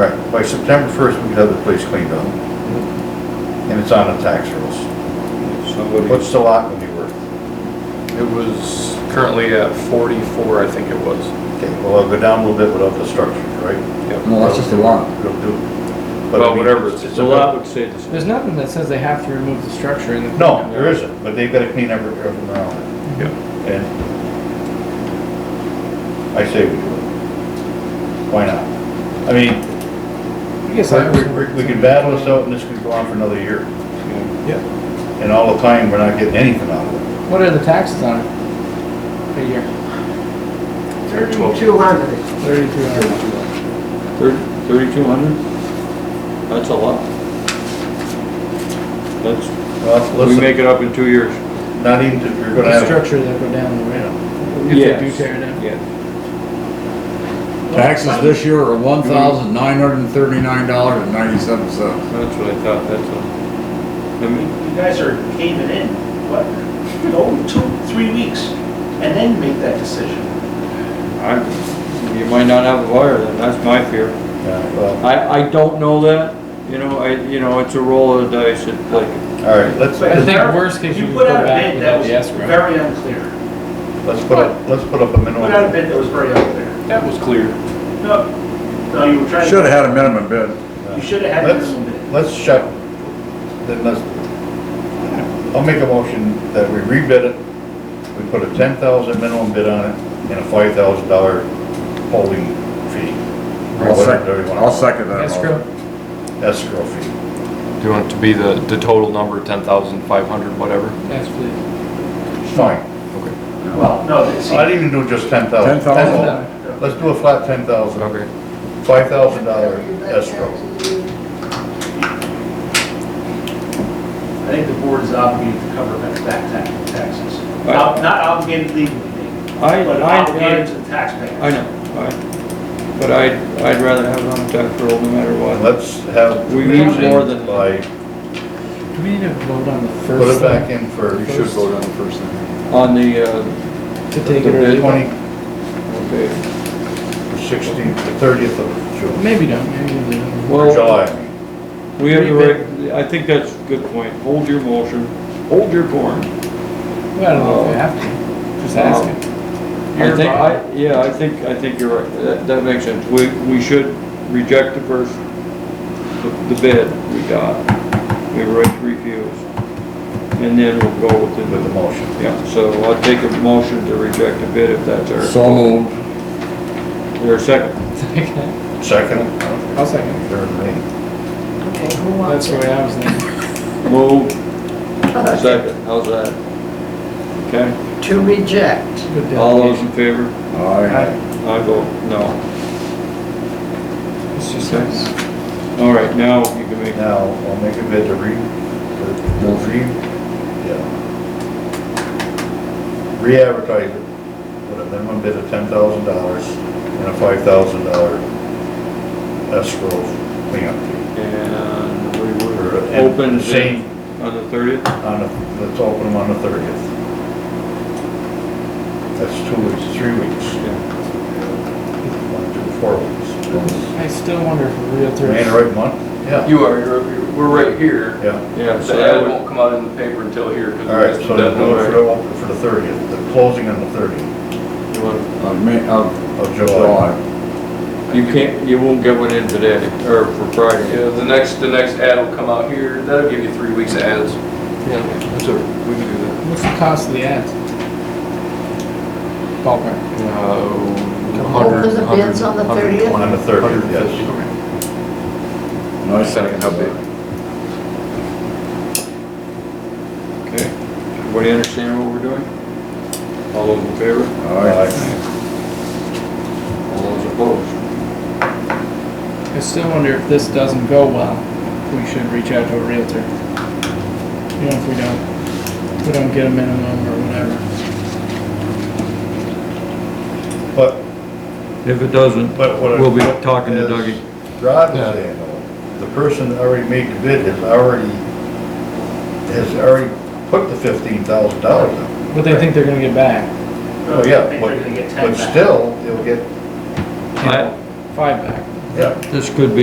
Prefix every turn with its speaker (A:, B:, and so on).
A: right, by September first, we could have the place cleaned up. And it's on the tax rolls.
B: Somebody,
A: What's the lot gonna be worth?
C: It was currently at 44, I think it was.
A: Okay, well, I'll go down a little bit without the structure, right?
C: Yep.
D: No, that's just a lot.
A: It'll do. But I
C: Well,
A: mean,
C: whatever, it's it's
E: The
C: a
E: lot would say the
F: There's
E: same.
F: nothing that says they have to remove the structure in the.
A: No, there isn't, but they've gotta clean every, everything around
C: Yep.
A: it. And I say we do it. Why not? I mean,
F: I guess I,
A: we, we- we could battle this out and this could go on for another year.
C: Yeah,
A: And all the time, we're not getting anything out of it.
F: what are the taxes on it? A year,
G: Thirty-two hundred.
F: thirty-two hundred.
E: Thirty-two hundred? That's a lot.
B: that's,
A: Well,
B: we
A: listen,
B: make it up in two years.
A: not even, if you're gonna
F: The
A: have.
F: structure that go down the rail. If they do
E: Yes.
F: tear it down.
E: Yeah.
D: Taxes this year are one thousand nine hundred and thirty-nine dollars and ninety-seven cents.
B: That's what I thought, that's what. I mean,
H: You guys are caving in, what, go two, three weeks, and then make that decision.
B: I, you might not have a buyer then, that's my fear.
A: Yeah, well,
B: I, I don't know that, you know, I, you know, it's a roll of the dice, it's like,
A: all right, let's,
H: But
F: I think
H: there-
F: worst case you
H: You
F: could
H: put
F: go
H: out a
F: back
H: bid
F: without
H: that
F: the
H: was
F: escrow.
H: very unclear.
A: let's put, up- let's put up a minimum.
H: Put out a bid that was very unclear.
E: That was clear.
H: No, no, you were trying to.
D: Should've had a minimum bid.
H: You should have had a
A: Let's-
H: minimum bid.
A: Let's shut, then let's, I'll make a motion that we rebid it, we put a ten thousand minimum bid on it, and a five thousand dollar holding fee. Or
D: I'll
A: whatever you
D: second,
A: wanna-
D: I'll second that.
F: Escrow,
A: Escrow fee.
C: do you want it to be the, the total number, 10,500, whatever?
F: yes, please.
A: Fine,
H: Well, no, it's,
A: I'd even do just ten thousand.
D: 10,000?
A: Let's do a flat ten thousand.
C: Okay.
A: Five thousand dollar escrow.
H: I think the board is obligated to cover back back tax- taxes. Not not obligated legally,
B: I,
H: but
B: I,
H: obligated
B: I,
H: to the taxpayer.
B: I know, I, but I, I'd rather have it on the tax roll no matter
A: And
B: what.
A: let's have.
B: We need more than-
A: By,
F: Do we need to vote on the
A: put
F: first
A: it back
F: thing
A: in for
C: You should vote on the first thing.
B: On the, uh,
F: to take
B: the
F: it or leave it?
A: twenty,
B: okay,
A: sixteenth, the thirtieth of June,
F: Maybe don't, maybe leave it.
A: or
B: well,
A: July, I mean.
B: we have the right, I think that's a good point, hold your motion, hold your corn.
F: Well, I don't know if we have to, just ask it.
B: I think, I, yeah, I think, I think you're right, that, that makes sense, we, we should reject the first, the the bid we got, we have a right to refuse, and then we'll go with
A: with the
B: the,
A: motion.
B: yeah, so I'll take a motion to reject the bid if that's our,
D: So moved.
B: their second.
F: I.
A: Second,
F: I'll second.
A: third, maybe.
G: Okay, who
F: That's
G: wants
F: the
G: it?
F: way I was thinking.
B: Move, second, how's that? Okay,
G: To reject.
F: Good
B: all those
F: delegation.
B: in favor?
D: Aye.
B: I vote no.
F: It's just nice.
B: All right, now you can make,
A: Now, I'll make a bid to re, to
D: Motion.
A: re, yeah. Re-advertise it with a minimum bid of ten thousand dollars and a five thousand dollar escrow cleanup fee.
B: and we
A: Or,
B: were
A: and
B: open
A: Same
B: on the thirtieth?
A: on the, let's open them on the thirtieth. That's two weeks, three weeks. One, two, four weeks.
F: I still wonder if a realtor.
A: Man, right month? Yeah,
E: You are, you're, we're right here.
A: yeah.
B: Yeah,
E: The
B: so that
E: ad
B: would,
E: won't come out in the paper until here. 'cause
A: All right,
E: that's-
A: so
E: that's
A: they'll do it for
E: nowhere.
A: the, op- for the thirtieth, the closing on the thirtieth
B: you wanna
D: Of May, of
A: of July.
D: July.
B: You can't, you won't get one in today, or for Friday.
E: Yeah, the next, the next ad will come out here. That'll give you three weeks of ads.
C: Yeah, that's all right. we can do that.
F: What's the cost of the ads? Ballpark.
C: Uh,
G: There's a bids on the 30th?
A: On the 30th, yes.
D: No, I
C: Second, how big?
B: Okay. Everybody understand what we're doing? All those in favor?
D: Aye.
B: All those opposed?
F: I still wonder if this doesn't go well, we should reach out to a realtor. You know, if we don't, if we don't get a minimum or whatever.
A: But,
B: If it doesn't,
A: but what. I-
B: We'll be talking to
A: is
B: Dougie.
A: Rod was saying, though, the person that already made the bid has already, has already put the fifteen thousand dollars up.
F: But they think they're gonna get back,
A: Oh,
H: I
A: yeah,
H: think
A: but,
H: they're gonna get ten
A: but
H: back.
A: still, it'll get,
B: I-
F: five back.
A: yeah.
B: this could be